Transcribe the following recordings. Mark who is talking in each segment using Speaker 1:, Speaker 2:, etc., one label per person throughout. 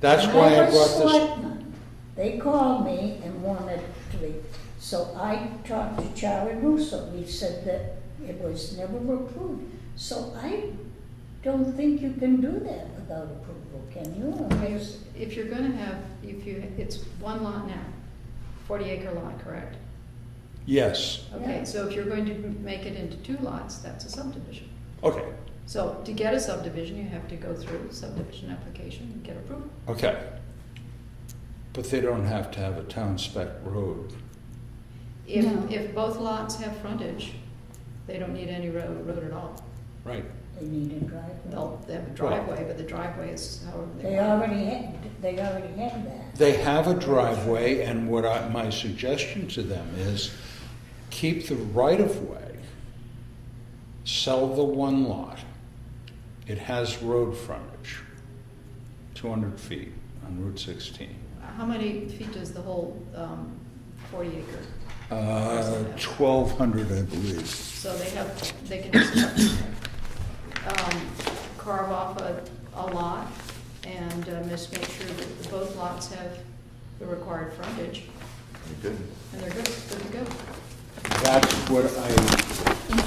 Speaker 1: That's why I
Speaker 2: Remember
Speaker 1: brought this,
Speaker 2: Selectmen? They called me and wanted to be, so I talked to Charlie Russo, he said that it was never approved. So I don't think you can do that without approval, can you? Unless-
Speaker 3: If you're gonna have, if you, it's one lot now, forty acre lot, correct?
Speaker 1: yes,
Speaker 3: Okay,
Speaker 2: Yeah.
Speaker 3: so if you're going to make it into two lots, that's a subdivision.
Speaker 1: okay,
Speaker 3: So to get a subdivision, you have to go through subdivision application and get approval.
Speaker 1: okay. But they don't have to have a town spec road.
Speaker 3: If,
Speaker 4: No.
Speaker 3: if both lots have frontage, they don't need any road, road at all.
Speaker 1: Right.
Speaker 2: They need a driveway.
Speaker 3: They'll, they have a driveway, but the driveway is however they
Speaker 2: They
Speaker 3: want.
Speaker 2: already had, they already had that.
Speaker 1: They have a driveway, and what I, my suggestion to them is keep the right of way, sell the one lot. It has road frontage, 200 feet on Route 16.
Speaker 3: How many feet does the whole, um, forty acre?
Speaker 1: Uh, 1,200, I believe.
Speaker 3: So they have, they can just, um, carve off a, a lot and uh, just make sure that both lots have the required frontage,
Speaker 5: Good.
Speaker 3: and they're good, good to go.
Speaker 1: That's what I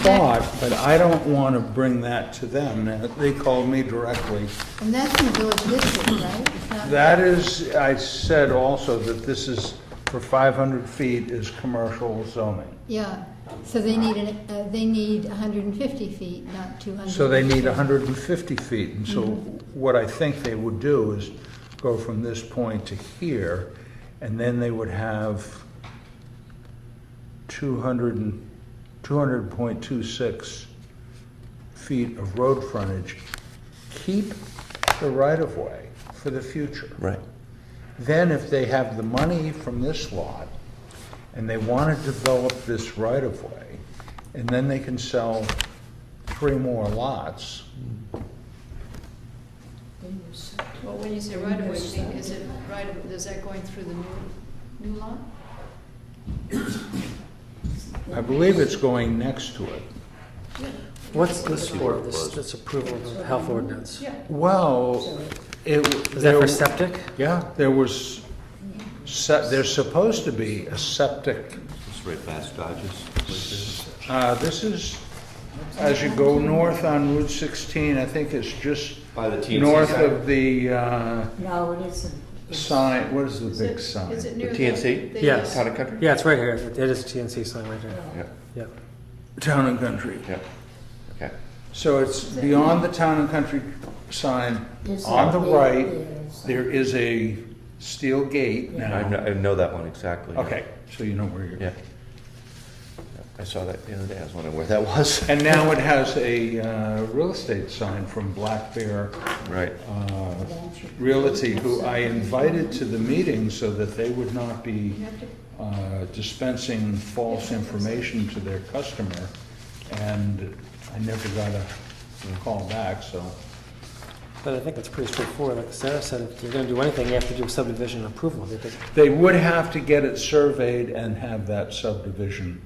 Speaker 1: thought, but I don't want to bring that to them. Now, They called me directly.
Speaker 4: And that's in the village district, right? It's not-
Speaker 1: That is, I said also that this is, for 500 feet is commercial zoning.
Speaker 4: Yeah, so they need, an- uh, they need 150 feet, not 200.
Speaker 1: So they need 150 feet, and so what I think they would do is go from this point to here, and then they would have 200 and, 200.26 feet of road frontage. Keep the right-of-way for the future.
Speaker 5: Right.
Speaker 1: Then if they have the money from this lot, and they want to develop this right-of-way, and then they can sell three more lots,
Speaker 2: Then you said-
Speaker 3: Well, when you say right of way, you mean, is it right of, is that going through the new, new lot?
Speaker 1: I believe it's going next to it.
Speaker 6: What's this for, this, this approval of the health ordinance?
Speaker 3: Yeah,
Speaker 1: Well, it.
Speaker 6: Is that for septic?
Speaker 1: Yeah, there was, se- there's supposed to be a septic.
Speaker 5: It's right past Dodges.
Speaker 1: Uh, This is, as you go north on Route 16, I think it's just
Speaker 5: By the TNC
Speaker 1: north
Speaker 5: side.
Speaker 1: of the uh,
Speaker 2: No, it isn't. It's-
Speaker 1: sign, what is
Speaker 3: Is
Speaker 1: the
Speaker 3: it-
Speaker 1: big sign?
Speaker 3: Is it near the?
Speaker 5: TNC?
Speaker 3: the-
Speaker 6: Yes.
Speaker 5: Town and Country?
Speaker 6: Yeah, it's right here, it is a TNC sign right here,
Speaker 2: well,
Speaker 5: Yeah,
Speaker 6: yeah.
Speaker 1: Town and Country.
Speaker 5: yeah. Okay.
Speaker 1: So it's beyond the Town and Country sign,
Speaker 2: there's
Speaker 1: on the
Speaker 2: a gate
Speaker 1: right,
Speaker 2: there, so-
Speaker 1: there is a steel gate
Speaker 5: I know,
Speaker 1: now.
Speaker 5: I know that one exactly.
Speaker 1: Okay, so you know where you're.
Speaker 5: Yeah. I saw that the other day. I was wondering where that was.
Speaker 1: And now it has a uh, real estate sign from Black Bear
Speaker 5: Right.
Speaker 1: uh,
Speaker 2: Don't you-
Speaker 1: Realty, who I invited to the meeting so that they would not be
Speaker 3: You have to,
Speaker 1: uh, dispensing false information to their customer. And I never got a call back, so.
Speaker 6: But I think it's pretty straightforward, like Sarah said, if you're gonna do anything, you have to do subdivision approval. You have to-
Speaker 1: They would have to get it surveyed and have that subdivision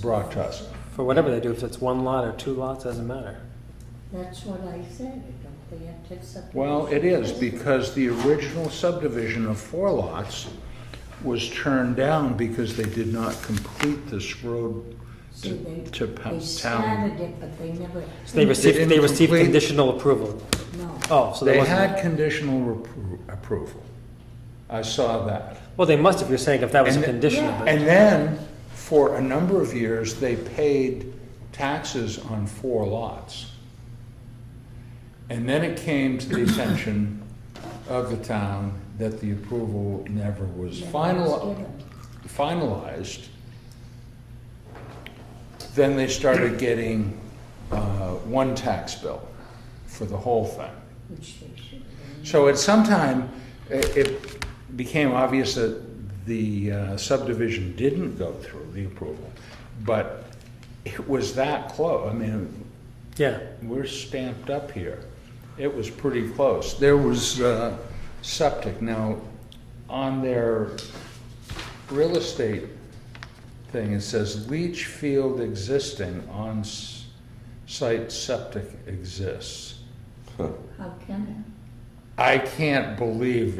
Speaker 1: brought to us.
Speaker 6: For whatever they do, if it's one lot or two lots, doesn't matter.
Speaker 2: That's what I said, don't they have to accept?
Speaker 1: Well, it is, because the original subdivision of four lots was turned down because they did not complete this road
Speaker 2: See,
Speaker 1: to,
Speaker 2: they,
Speaker 1: to pa-
Speaker 2: they
Speaker 1: town.
Speaker 2: started it, but they never,
Speaker 6: So they received, they
Speaker 1: didn't
Speaker 6: received
Speaker 1: complete-
Speaker 6: conditional approval.
Speaker 2: no.
Speaker 6: Oh, so there
Speaker 1: They
Speaker 6: wasn't.
Speaker 1: had conditional repro- approval. I saw that.
Speaker 6: Well, they must if you're saying if that was a
Speaker 1: And-
Speaker 6: condition of it.
Speaker 1: And then, for a number of years, they paid taxes on four lots. And then it came to the attention of the town that the approval never was
Speaker 2: never
Speaker 1: final,
Speaker 2: was given.
Speaker 1: finalized, then they started getting uh, one tax bill for the whole thing.
Speaker 2: Which they should have.
Speaker 1: So at some time, i- it became obvious that the uh, subdivision didn't go through the approval, but it was that close. I mean,
Speaker 6: Yeah,
Speaker 1: we're stamped up here. It was pretty close. There was uh, septic. Now, on their real estate thing, it says leach field existing on s- site septic exists.
Speaker 2: How can
Speaker 1: I can't believe